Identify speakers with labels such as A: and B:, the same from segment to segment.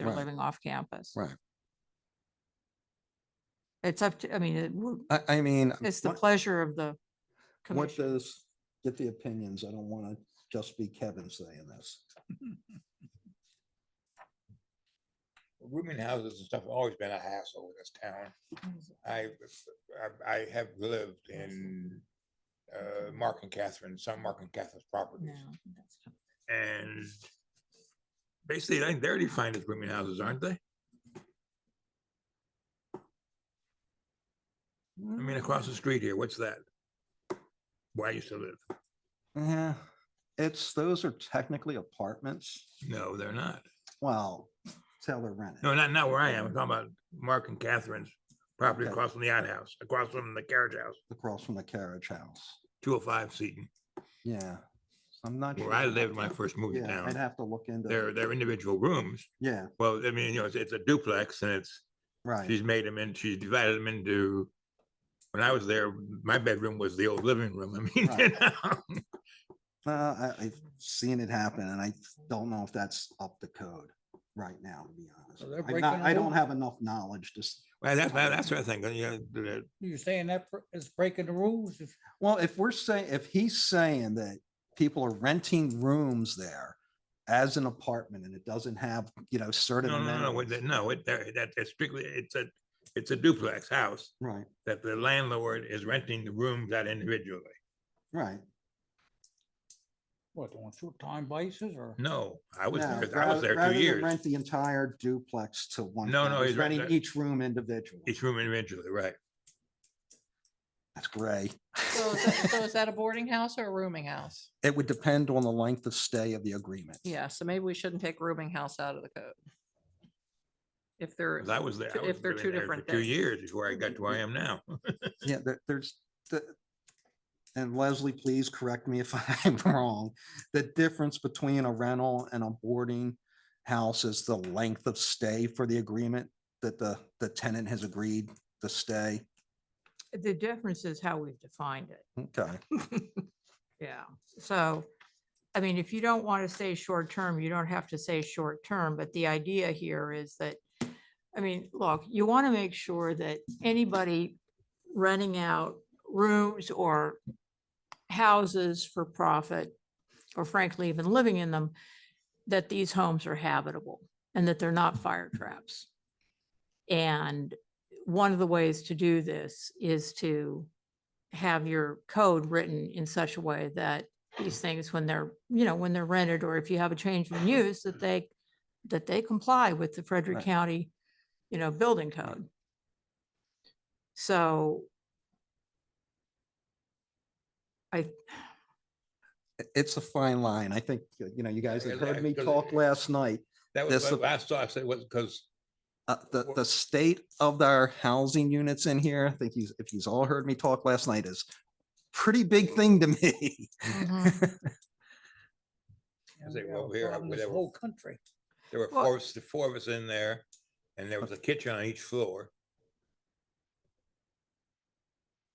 A: Right.
B: they're living off campus.
A: Right.
B: It's up to, I mean, it would-
A: I, I mean.
B: it's the
A: what-
B: pleasure of the
A: What
B: commission.
A: does, get the opinions. I don't want to just be Kevin saying this.
C: Rooming houses and stuff have always been a hassle in this town. I, I, I have lived in uh, Mark and Catherine, some Mark and Catherine's properties.
B: No, that's not-
C: And basically, I think they're defined as rooming houses, aren't they? I mean, across the street here, what's that? Where I used to live.
A: Yeah, it's, those are technically apartments.
C: No, they're not.
A: Well, tell they're rented.
C: No, not, not where I am. I'm talking about Mark and Catherine's property
A: Okay.
C: across from the outhouse, across from the carriage house,
A: Across from the carriage house.
C: two oh five Seaton,
A: Yeah. I'm not.
C: where
A: sure
C: I
A: about
C: lived when I
A: that.
C: first moved to
A: Yeah, I'd
C: town.
A: have to look into.
C: They're, they're individual rooms.
A: Yeah,
C: Well, I mean, you know, it's, it's a duplex and it's,
A: right.
C: she's made them and she's divided them into, when I was there, my bedroom was the old living room. I mean, you know,
A: Uh, I, I've seen it happen and I don't know if that's up to code right now, to be honest.
D: they're
A: I'm
D: breaking
A: not-
D: the
A: I don't
D: rules.
A: have enough knowledge to, s-
C: well, that's, that's sort of thing, you know, the-
D: You're saying that br- is breaking the rules? if-
A: Well, if we're saying, if he's saying that people are renting rooms there as an apartment and it doesn't have, you know, certain
C: no, no, no, no, what
A: amenities.
C: they- no, it, that, that- it's strictly, it's a, it's a duplex house
A: Right,
C: that the landlord is renting the rooms out individually.
A: right.
D: What, on short-time basis or?
C: No, I was,
A: Now,
C: there- I was
A: rather-
C: there
A: rather
C: two
A: than
C: years,
A: Rent the entire duplex to one.
C: No,
A: family,
C: no,
A: he's
C: he's right
A: Renting
C: there.
A: each room individually.
C: each room individually, right?
A: That's gray.
B: So is that- so is that a boarding house or a rooming house?
A: It would depend on the length of stay of the agreement.
B: Yeah, so maybe we shouldn't take rooming house out of the code. If they're,
C: 'Cause I was there,
B: Two-
C: I was
B: if they're
C: living
B: two
C: there for
B: different
C: two
B: things.
C: years before I got to where I am now.
A: Yeah, there, there's the, and Leslie, please correct me if I'm wrong. The difference between a rental and a boarding house is the length of stay for the agreement that the, the tenant has agreed to stay.
B: the difference is how we've defined it.
A: Okay,
B: Yeah, so, I mean, if you don't want to say short-term, you don't have to say short-term, but the idea here is that, I mean, look, you want to make sure that anybody renting out rooms or houses for profit, or frankly, even living in them, that these homes are habitable and that they're not fire traps. And one of the ways to do this is to have your code written in such a way that these things, when they're, you know, when they're rented, or if you have a change in use, that they, that they comply with the Frederick
A: Mm-hmm. Right.
B: County, you know, building code. So I,
A: I- it's a fine line. I think, uh, you know, you guys have
C: Yeah,
A: heard me
C: because
A: talk
C: it-
A: last night.
C: That
A: That's
C: was
A: the-
C: what I saw, I said, was, because
A: Uh, the,
C: Wha-
A: the state of our housing units in here, I think he's, if he's all heard me talk last night is pretty big thing to me.
B: Mm-hmm.
D: Yeah,
C: Say,
D: we
C: well,
D: have a
C: we are-
D: problem in
C: we
D: this
C: have a-
D: Whole country.
C: there were
B: Well-
C: four, of us- the four of us in there, and there was a kitchen on each floor.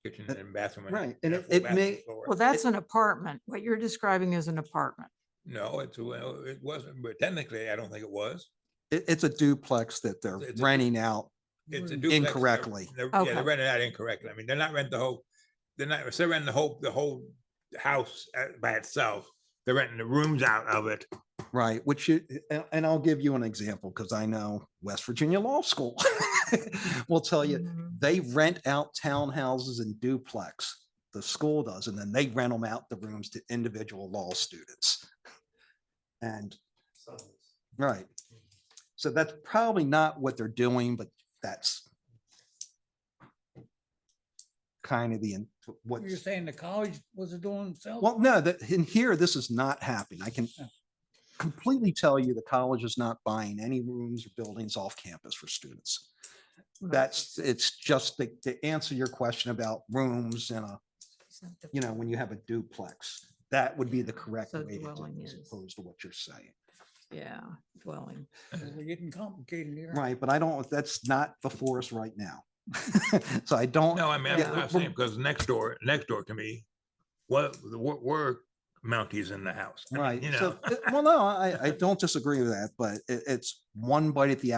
C: Kitchen
A: And-
C: and bathroom.
A: Uh, right, and
C: a
A: it-
C: full
A: it
C: bathroom
A: may-
C: floor.
B: well, that's an apartment. What you're describing is an apartment.
C: No, it's, well, it wasn't, but technically, I don't think it was.
A: It, it's a duplex that they're
C: It's a du-
A: renting out
C: It's a duplex,
D: Right.
C: they're-
A: Mm, Incorrectly.
C: they're- Yeah,
B: Okay.
C: they're renting out incorrectly. I mean, they're not renting the whole, they're not, if they're renting the whole, the whole house uh, by itself. They're renting the rooms out of it.
A: Right, which you, and, and I'll give you an example, because I know West Virginia Law School will tell you,
B: Mhm.
A: they rent out townhouses and duplex, the school does, and then they rent them out the rooms to individual law students. And, right, so that's probably not what they're doing, but that's kind of the, in- what's.
D: You're saying the college wasn't doing themselves?
A: Well, no, that in here, this is not happening. I can completely tell you the college is not buying any rooms or buildings off campus for students. That's, it's just to, to answer your question about rooms and a, you know, when you have a duplex, that would be the correct
B: So
A: way to do
B: dwelling
A: it as
B: is-
A: opposed to what you're saying.
B: Yeah, dwelling.
D: We're getting complicated here.
A: Right, but I don't, that's not before us right now. So I don't,
C: No, I mean,
A: Yeah,
C: I'm I'm
A: we're-
C: saying, because next door, next door to me, what, the wor- work, Mounties in the house. I mean,
A: Right.
C: You
A: So,
C: know.
A: uh, well, no, I, I don't disagree with that, but it, it's one bite at the